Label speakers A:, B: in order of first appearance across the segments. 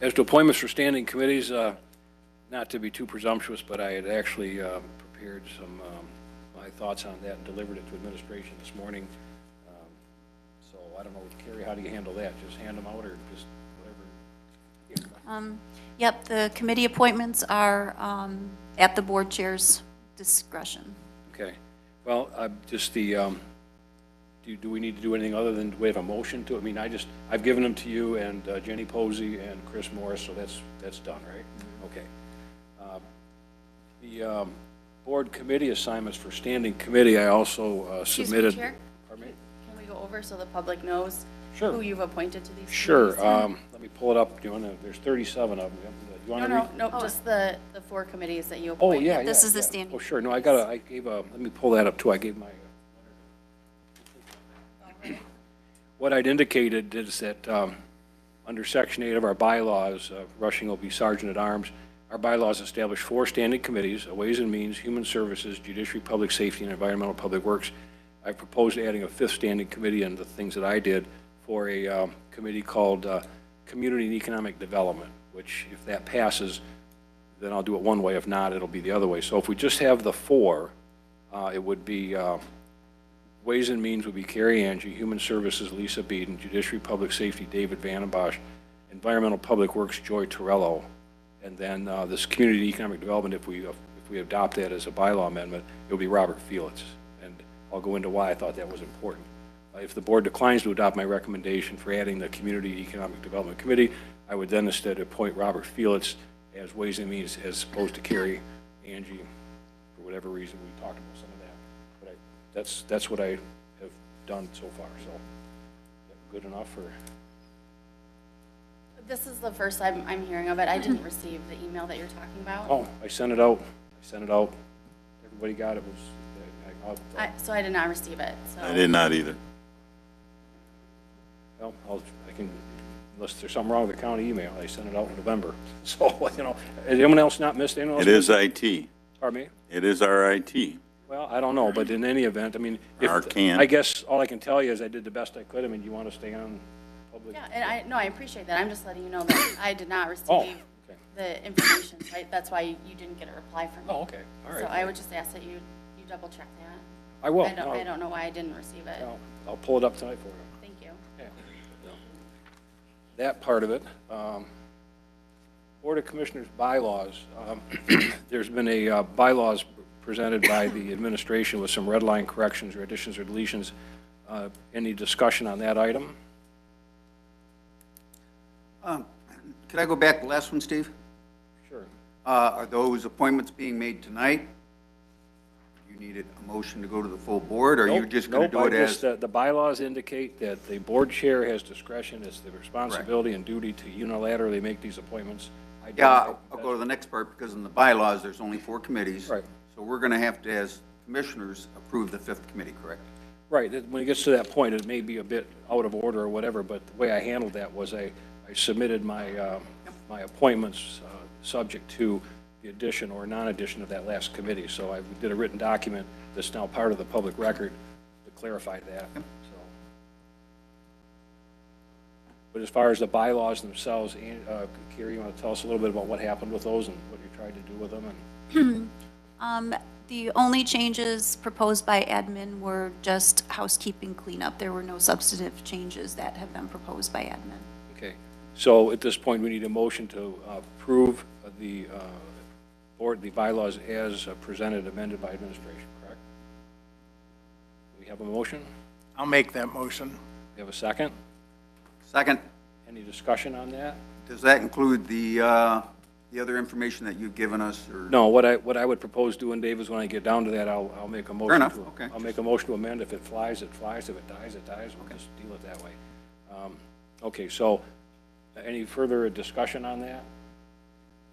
A: As to appointments for standing committees, uh, not to be too presumptuous, but I had actually um, prepared some, um, my thoughts on that and delivered it to administration this morning. Um, So I don't know, Carrie, how do you handle that? Just hand them out or just whatever?
B: Yep, the committee appointments are um, at the board chair's discretion.
A: Okay. Well, I, just the, um, do, do we need to do anything other than, do we have a motion to? I mean, I just, I've given them to you and uh, Jenny Posey and Chris Morris, so that's, that's done, right? Okay. Uh, The, um, board committee assignments for standing committee, I also uh,
C: Excuse me,
A: submitted.
C: Chair?
A: Pardon me?
C: Can we go over so the public knows
A: Sure.
C: who you've appointed to these?
A: Sure,
C: committees?
A: um, let me pull it up. Do you wanna, there's thirty-seven of them. You
C: No,
A: wanna read?
C: no, no, just the, the four committees that you
A: Oh,
C: appointed.
A: yeah, yeah.
B: This is the
A: yeah.
B: standing
A: Oh, sure, no, I got a, I gave a, let me pull that up too, I gave my. uh, What I'd indicated is that, um, under section eight of our bylaws, uh, Rushing will be sergeant at arms. Our bylaws establish four standing committees, a Ways and Means, Human Services, Judiciary, Public Safety, and Environmental Public Works. I proposed adding a fifth standing committee and the things that I did for a, um, committee called, uh, Community and Economic Development, which if that passes, then I'll do it one way. If not, it'll be the other way. So if we just have the four, uh, it would be, uh, Ways and Means would be Carrie Angie, Human Services Lisa Beeden, Judiciary Public Safety David Vandenbosch, Environmental Public Works Joy Torello, and then uh, this Community Economic Development, if we, if we adopt that as a bylaw amendment, it would be Robert Felix. And I'll go into why I thought that was important. Uh, If the board declines to adopt my recommendation for adding the Community Economic Development Committee, I would then instead appoint Robert Felix as Ways and Means as opposed to Carrie Angie, for whatever reason, we talked about some of that. But I, that's, that's what I have done so far, so. Good enough or?
C: This is the first I'm, I'm hearing of it. I didn't receive the email that you're talking about.
A: Oh, I sent it out, I sent it out. Everybody got it, was, I- I'll,
C: I, so I did not receive it, so.
D: I did not either.
A: well, I'll, I can, unless there's something wrong with the county email, I sent it out in November. So, you know, has anyone else not missed, anyone else?
D: It is IT. It
A: Pardon me?
D: is our IT.
A: Well, I don't know, but in any event, I mean, if.
D: Or can.
A: I guess all I can tell you is I did the best I could. I mean, you want to stay on public?
C: Yeah, and I, no, I appreciate that. I'm just letting you know that I did not
A: Oh,
C: receive
A: okay.
C: the information, right? That's why you didn't get a reply from me.
A: Oh, okay, all
C: So
A: right.
C: I would just ask that you, you double check that.
A: I will.
C: I don't,
A: No,
C: I don't know why I didn't receive it.
A: I'll- I'll pull it up tonight for you.
C: Thank you.
A: that part of it. Um, Board of Commissioners bylaws, um, there's been a uh, bylaws presented by the administration with some red line corrections or additions or deletions. Uh, Any discussion on that item?
E: Um, Could I go back to the last one, Steve?
A: Sure.
E: Uh, Are those appointments being made tonight? You needed a motion to go to the full board, or you're
A: Nope,
E: just going to
A: nope,
E: do it
A: I just- uh,
E: as?
A: The the bylaws indicate that the board chair has discretion, it's the responsibility and duty to unilaterally make these appointments. I don't-
E: Yeah, I'll I'll go to the next part, because in the bylaws, there's only four committees.
A: Right.
E: So we're going to have to, as commissioners, approve the fifth committee, correct?
A: Right, that- when it gets to that point, it may be a bit out of order or whatever, but the way I handled that was I, I submitted my, uh, my appointments, uh, subject to the addition or non-addition of that last committee. So I did a written document that's now part of the public record to clarify that, so. But as far as the bylaws themselves, An- uh, Carrie, you want to tell us a little bit about what happened with those and what you tried to do with them? And
B: Um, The only changes proposed by admin were just housekeeping cleanup. There were no substantive changes that have been proposed by admin.
A: Okay, so at this point, we need a motion to approve the uh, board, the bylaws as presented, amended by administration, correct? We have a motion?
F: I'll make that motion.
A: We have a second?
E: Second,
A: Any discussion on that?
E: does that include the, uh, the other information that you've given us, or?
A: No, what I, what I would propose doing, Dave, is when I get down to that, I'll, I'll make a motion.
E: enough,
A: to-
E: okay.
A: I'll make a motion to amend. If it flies, it flies. If it dies, it dies. We'll just deal with it that way. Um, Okay, so uh, any further discussion on that?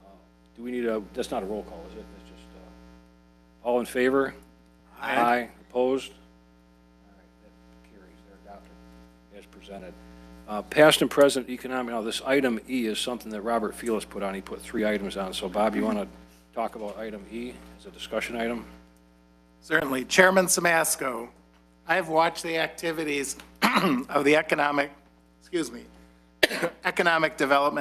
A: Uh, Do we need a, that's not a roll call, is it? It's just, uh, all in favor? Aye. Opposed? All right, that carries, they're adopted as presented. Uh, Past and present economic, now this item E is something that Robert Felix put on, he put three items on. So Bob, you want to talk about item E as a discussion item?
F: Certainly. Chairman Samasco, I have watched the activities of the Economic, excuse me, Economic Development